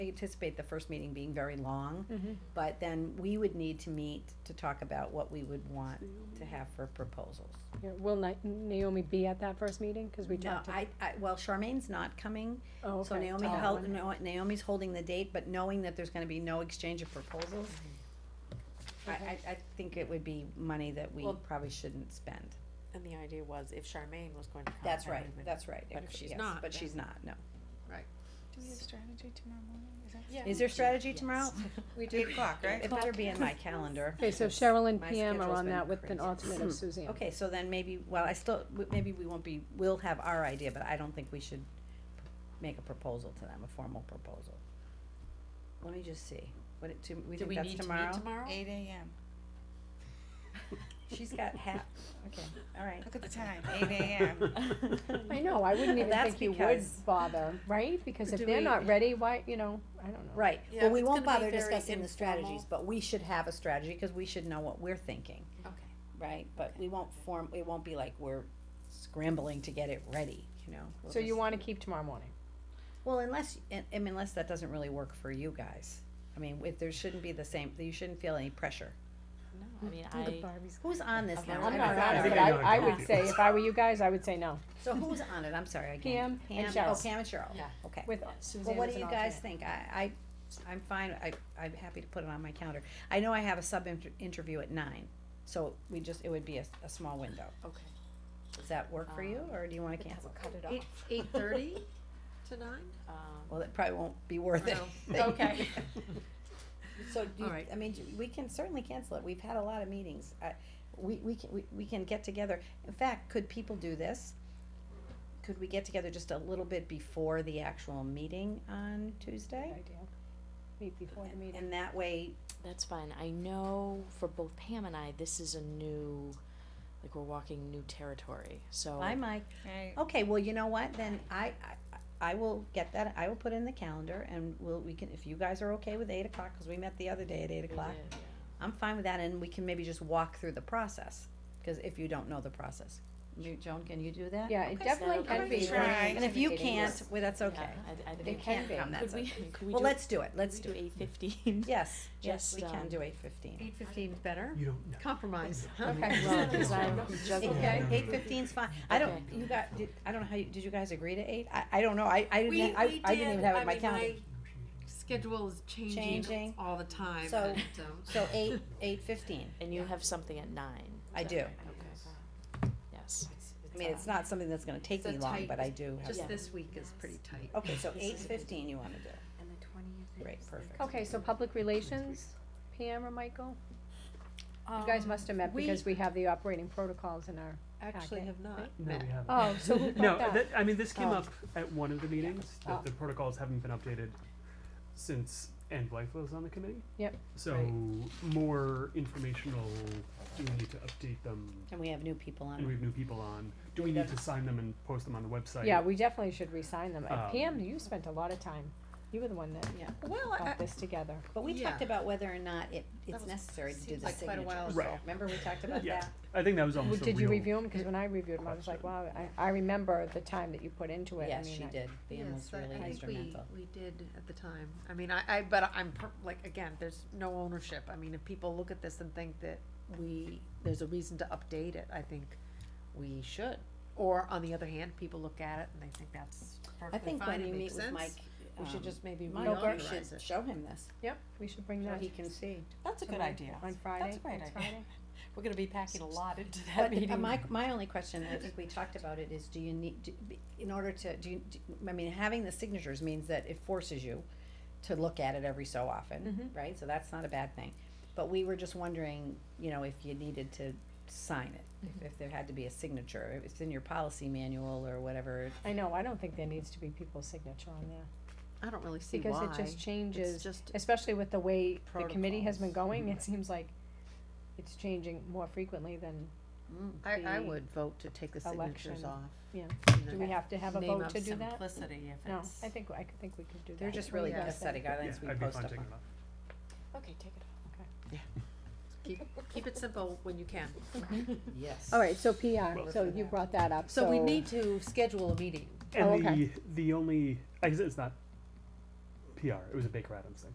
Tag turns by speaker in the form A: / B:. A: I anticipate the first meeting being very long, but then we would need to meet to talk about what we would want to have for proposals.
B: Yeah, Will Na- Naomi be at that first meeting? Because we
A: No,
B: talked. to-
A: I, I, well, Charmaine's not coming,
B: Oh,
A: so
B: okay.
A: Naomi
B: Oh,
A: held,
B: okay.
A: no- Naomi's holding the date, but knowing that there's gonna be no exchange of proposals, I, I,
B: Okay.
A: I think it would be money that we
C: Well-
A: probably shouldn't spend.
C: And the idea was if Charmaine was going to come.
A: That's
C: I
A: right,
C: would've been-
A: that's right.
C: But if she's
A: yes,
C: not,
A: But she's
C: then-
A: not, no.
D: Do we have strategy tomorrow morning? Is that?
C: Yeah.
A: Is there strategy tomorrow? We do. Eight o'clock, right? It better be in my calendar.
B: Okay, so Cheryl and
A: My
B: PM are
A: schedule's
B: on
A: been
B: that with an
A: crazy.
B: alternate of Suzanne.
A: Hmm. Okay, so then maybe, well, I still, w- maybe we won't be, we'll have our idea, but I don't think we should make a proposal to them, a formal proposal. Let me just see, what it, to- we
C: Do
A: think
C: we
A: that's
C: need to meet
A: tomorrow?
C: tomorrow?
D: Eight AM.
A: She's got half, okay, all right.
D: Look at the time, eight AM.
B: I know, I wouldn't even
A: That's
B: think you would
A: because-
B: bother, right? Because if
A: Do
B: they're
A: we-
B: not ready, why, you know, I don't know.
A: Right,
C: Yeah,
A: well, we
C: it's
A: won't
C: gonna be
A: bother
C: very
A: discussing the strategies,
C: informal.
A: but we should have a strategy, cause we should know what we're thinking,
C: Okay.
A: right? But we won't form, it won't be like we're scrambling to get it ready, you know? We'll
B: So you
A: just-
B: wanna keep tomorrow morning?
A: Well, unless, I I mean, unless that doesn't really work for you guys. I mean, if there shouldn't be the same, you shouldn't feel any pressure.
C: No,
A: Mm,
C: I mean, I,
A: Who's on this now?
B: I'm
A: I
B: not
A: forgot
B: on it,
A: already.
B: but
E: I
B: I,
E: think I
B: I
E: know
B: would
E: you.
B: say, if I were you guys, I would say no,
A: So who's on it? I'm sorry, again.
B: Pam and
A: Oh,
B: Cheryl.
A: Pam and Cheryl.
C: Yeah.
A: Okay.
B: with
A: Well,
B: Suzanne
A: what
B: as
A: do
B: an
A: you guys
B: alternate.
A: think? I, I, I'm fine. I, I'm happy to put it on my calendar. I know I have a sub inter- interview at nine, so we just, it would be a, a small window.
C: okay.
A: Does that work for you, or do you wanna cancel?
C: Cut it
F: Eight, eight thirty to nine?
C: off. Um,
A: Well, that probably won't be worth it.
F: Okay.
A: So do you,
F: All right.
A: I mean, do- we can certainly cancel it, we've had a lot of meetings, I, we, we can, we, we can get together, in fact, could people do this? Could we get together just a little bit before the actual meeting on Tuesday?
B: Idea. Meet before the meeting.
A: And that way,
C: That's fine. I know for both Pam and I, this is a new, like, we're walking new territory, so.
A: bye Mike,
D: Right.
A: oh. okay, well, you know what, then I, I, I will get that, I will put in the calendar and we'll, we can, if you guys are okay with eight o'clock, cause we met the other day at eight
C: We
A: o'clock.
C: did, yeah.
A: I'm fine with that, and we can maybe just walk through the process, cause if you don't know the process. You, Joan, can you do that?
B: Yeah, it
C: Okay,
B: definitely
C: so
B: can
C: I'm
B: be.
D: gonna try.
B: very
A: And if you
B: intimidating.
A: can't, well, that's okay.
C: Yeah, I, I think.
A: They
C: we
A: can't
B: can.
A: come, that's
C: Could we,
A: okay.
C: could we do?
A: Well, let's do it, let's do it.
C: Eight fifteen.
A: Yes, yes, we
C: Just,
A: can
C: um,
A: do eight fifteen.
F: Eight fifteen's better.
E: You don't know.
F: Compromise.
B: Okay.
C: Well, because I'm juggling.
A: Okay,
E: Okay.
A: eight fifteen's fine. I don't, you got, did, I don't know how you, did you guys agree to eight? I, I don't know, I, I
F: We,
A: didn't,
F: we
A: I, I didn't even
F: did,
A: have it
F: I
A: in my
F: mean,
A: calendar.
F: my schedule is
A: Changing.
F: changing all the time
A: So-
F: and, um,
A: So eight, eight fifteen,
C: And you have something at nine.
A: I
C: Is that
A: do.
C: right? Yes.
A: I mean, it's not something that's gonna take
F: it's a
A: me long,
F: tight-
A: but I do have. Oh,
F: Just
C: Yeah.
F: this week is pretty tight.
A: Okay, so eight fifteen you wanna do,
F: And the twentieth.
A: great, perfect.
B: Okay, so public relations, Pam or Michael? You guys must have met
F: we-
B: because Um, we have the operating protocols in our,
F: Actually
B: Okay.
F: have not
E: No,
F: met.
E: we haven't.
B: oh, so who
E: No,
B: brought that?
E: that- I mean, this came
B: Oh.
E: up at one of the meetings,
B: Oh.
E: that the protocols haven't been updated since Anne Blythe was on the committee.
B: Yep.
E: So more informational, do we need to update them,
A: And we have new people on.
E: and we have new people on, do we need to sign them and post them on the website?
B: Yeah, we definitely should re-sign them. And
E: Um,
B: Pam, you spent a lot of time. You were the one that
F: Well, I,
B: got this together.
A: But we talked
F: Yeah.
A: about whether or not it, it's
F: was-
A: necessary to do
F: seems
A: the
F: like quite a while
A: signatures.
E: ago. Right.
A: Remember we talked about
E: Yeah.
A: that?
E: I think that was
B: Well,
E: almost a real.
B: Did you review them? Cause when I reviewed them, I was like, wow,
E: question.
B: I, I remember the time that you put into it. I
A: Yes,
B: mean,
A: she
B: I-
A: did. Pam was
F: yes, I-
A: really
F: I think we,
A: instrumental.
F: we did at the time. I mean, I, I, but I'm, per- like, again, there's no ownership. I mean, if people look at this and think that we, there's a reason to update it, I think we should. Or on the other hand, people look at it and they think that's
A: I
F: perfectly
A: think
F: fine,
A: when
F: it
A: you meet
F: makes
A: with Mike,
F: sense. We should
A: um,
F: just maybe
A: Mike,
B: Milberg
A: you
F: reauthorize
A: should
F: it.
A: show him this,
B: Yep, we should bring
A: so
B: that
A: he can see.
C: That's a good
B: Somebody-
C: idea.
B: on Friday.
C: That's a great
B: next
C: idea.
B: Friday.
C: We're gonna be packing a lot into that
A: But
C: meeting.
A: uh, my, my only question, I think we talked about it, is do you need, do- be- in order to, do you, do- I mean, having the signatures means that it forces you to look at it every so often,
B: Mhm.
A: right? So that's not a bad thing. But we were just wondering, you know, if you needed to sign it,
B: Mm-hmm.
A: if- if there had to be a signature, if it's in your policy manual or whatever.
B: I know, I don't think there needs to be people's signature on there.
F: I don't really see why.
B: Because it just
F: It's
B: changes,
F: just,
B: especially with the way the committee has been
F: Protocols.
B: going, it seems like it's changing more frequently than,
F: I, I
B: the
F: would vote to take the signatures
B: election.
F: off.
B: Yeah.
F: In
B: do
F: the
B: we have to have a
F: name
B: vote
F: of
B: to do that?
F: Simplicity if
B: No,
F: it's.
B: I think, I could- think we could do that.
A: They're just
B: What do
A: really
B: you
F: Yeah.
A: good
B: guys
A: set of
B: think?
A: guidelines
E: Yeah,
A: we
E: I'd be
A: post
E: fine
A: up
E: taking
A: on.
E: it off.
C: Okay, take it off.
F: Keep, keep it simple when you can.
A: Yes.
B: All right, so PR,
A: Well,
B: so
A: that's-
B: you brought that up, so.
F: So we need to schedule a meeting.
B: Oh,
E: And
B: okay.
E: the, the only, I guess it's not PR. It was a Baker Adams thing.